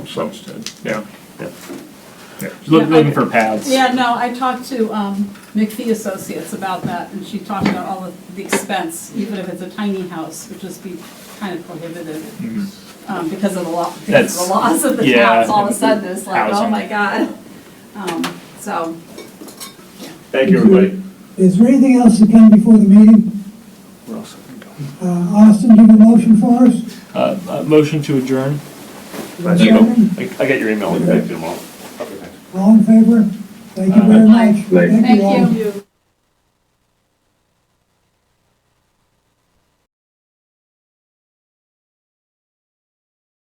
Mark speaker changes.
Speaker 1: So, yeah. Yeah.
Speaker 2: Yeah. Look-
Speaker 3: Yeah, I-
Speaker 2: Looking for paths.
Speaker 3: Yeah, no, I talked to um, McPhee Associates about that, and she talked about all of the expense, even if it's a tiny house, would just be kind of prohibited um, because of the law, because of
Speaker 2: Mm-hmm. That's-
Speaker 3: the laws of the
Speaker 2: yeah.
Speaker 3: towns, all of a sudden, it's like, oh
Speaker 2: Housing.
Speaker 3: my God. Um, So,
Speaker 2: Thank you, everybody.
Speaker 4: Is there anything else that came before the meeting? Uh, Austin, do you have a motion for us?
Speaker 2: Uh, uh, motion to adjourn.
Speaker 4: Second.
Speaker 2: I, I got your email.
Speaker 4: All in favor? Thank you very much.
Speaker 3: thank
Speaker 4: all.
Speaker 3: you.